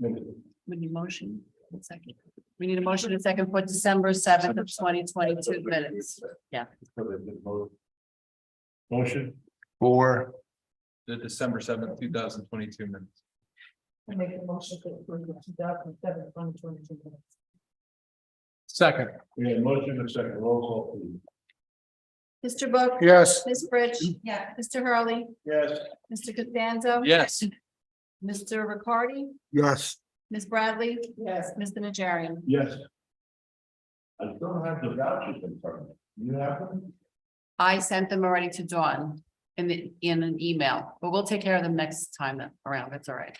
We need motion, and second. We need a motion and second for December seventh of twenty twenty-two minutes. Yeah. Motion. for the December seventh, two thousand twenty-two minutes. Make a motion to approve the two thousand seven, twenty twenty-two minutes. Second. We have a motion and a second roll call please. Mr. Book, yes, Ms. Fritsch. Yeah. Mr. Hurley, Yes. Mr. Costanzo. Yes. Mr. Ricardi, yes, Ms. Bradley, Yes. Mr. Najarian. Yes. I still have the vouchers in front of me. You have them? I sent them already to Dawn in the, in an email, but we'll take care of them next time that- around. That's all right.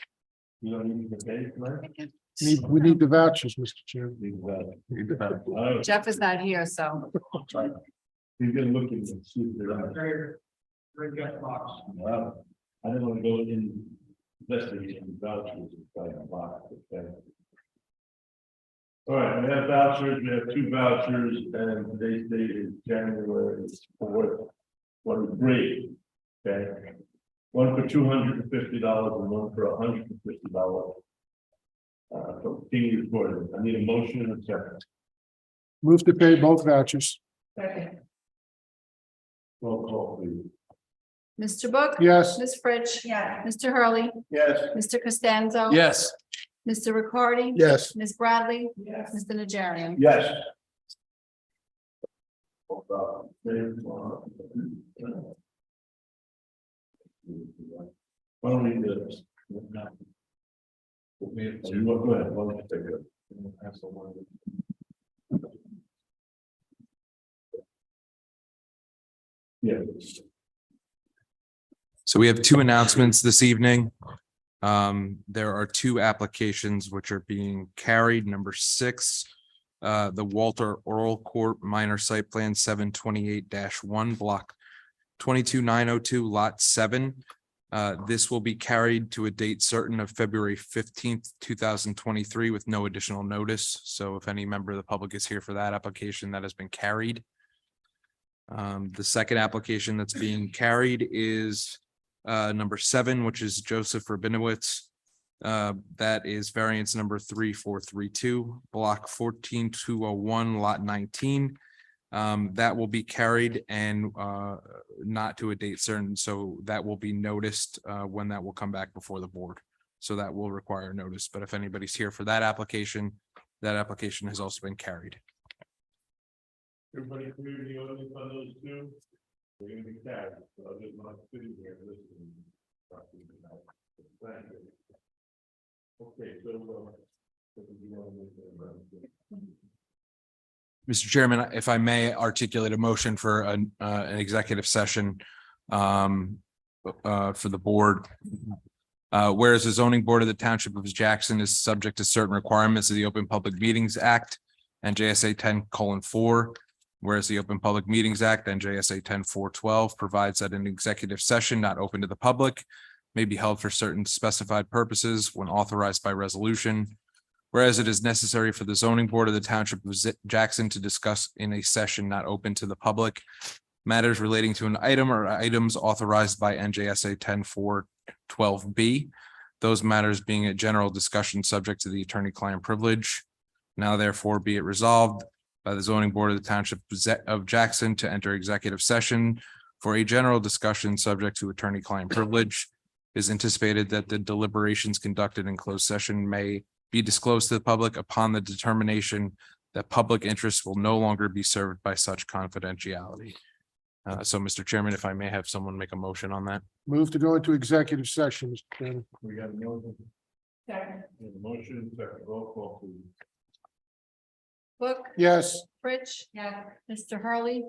You don't need the page, right? need- we need the vouchers, Mr. Chairman. These vouchers. Need the vouchers. Oh, Jeff is not here, so He's been looking and see if they're. Wow. I didn't want to go in. Investigating vouchers inside the box. okay? All right, we have vouchers, we have two vouchers, and today's date is January fourth, one three. Okay. One for two hundred and fifty dollars and one for hundred and fifty dollars. Uh, from King Gordon, I need a motion and a second. Move to pay both vouchers, Second, Roll call, please. Mr. Book. yes, Ms. Fritsch. yeah. Mr. Hurley, Yes. Mr. Costanzo. Yes. Mr. Ricardi. yes, Ms. Bradley, Yes. Mr. Najarian. Yes. Only this. We have to, go ahead, one can take it. That's the one. Yes. So we have two announcements this evening. Um, there are two applications which are being carried. Number six, uh, the Walter Oral Court Minor Site Plan seven twenty-eight one block twenty-two nine oh two lot seven. Uh, this will be carried to a date certain of February fifteenth, two thousand twenty-three with no additional notice. So if any member of the public is here for that application, that has been carried. Um, the second application that's being carried is uh, number seven, which is Joseph Rabinowitz. Uh, that is variance number three, four, three, two, block fourteen, two, oh, one, lot nineteen. Um, that will be carried and uh, not to a date certain, so that will be noticed uh, when that will come back before the board. So that will require notice, but if anybody's here for that application, that application has also been carried. Everybody clear the audience on those two? We're gonna be sad, so I just want to sit here and listen. Thank you. Okay, so. uh, Mr. Chairman, if I may articulate a motion for an, uh, an executive session, um, uh, for the board. Uh, whereas the zoning board of the township of Jackson is subject to certain requirements of the Open Public Meetings Act and JSA ten colon four. Whereas the Open Public Meetings Act and JSA 10 412 provides that an executive session not open to the public may be held for certain specified purposes when authorized by resolution. Whereas it is necessary for the zoning board of the township of Zi- Jackson to discuss in a session not open to the public. Matters relating to an item or items authorized by NJSA 10 412 B. Those matters being a general discussion subject to the attorney-client privilege. Now therefore be it resolved by the zoning board of the township of Za- of Jackson to enter executive session. For a general discussion subject to attorney-client privilege. It is anticipated that the deliberations conducted in closed session may be disclosed to the public upon the determination that public interest will no longer be served by such confidentiality. Uh, so, Mr. Chairman, if I may have someone make a motion on that. move to go into executive session, Mr. Chairman. We got a motion, Second, we have a motion, second roll call, please. Book, yes. Fritsch. Yeah. Mr. Hurley.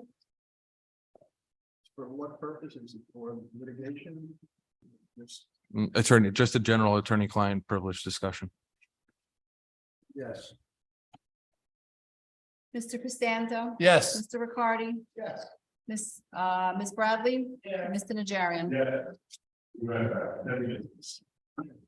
For what purpose is it for litigation? Yes. Mm, Attorney, just a general attorney-client privilege discussion. Yes. Mr. Costanzo. Yes. Mr. Ricardi, Yes. Ms. Uh, Ms. Bradley, yeah. Mr. Najarian. Yeah. Right, that is.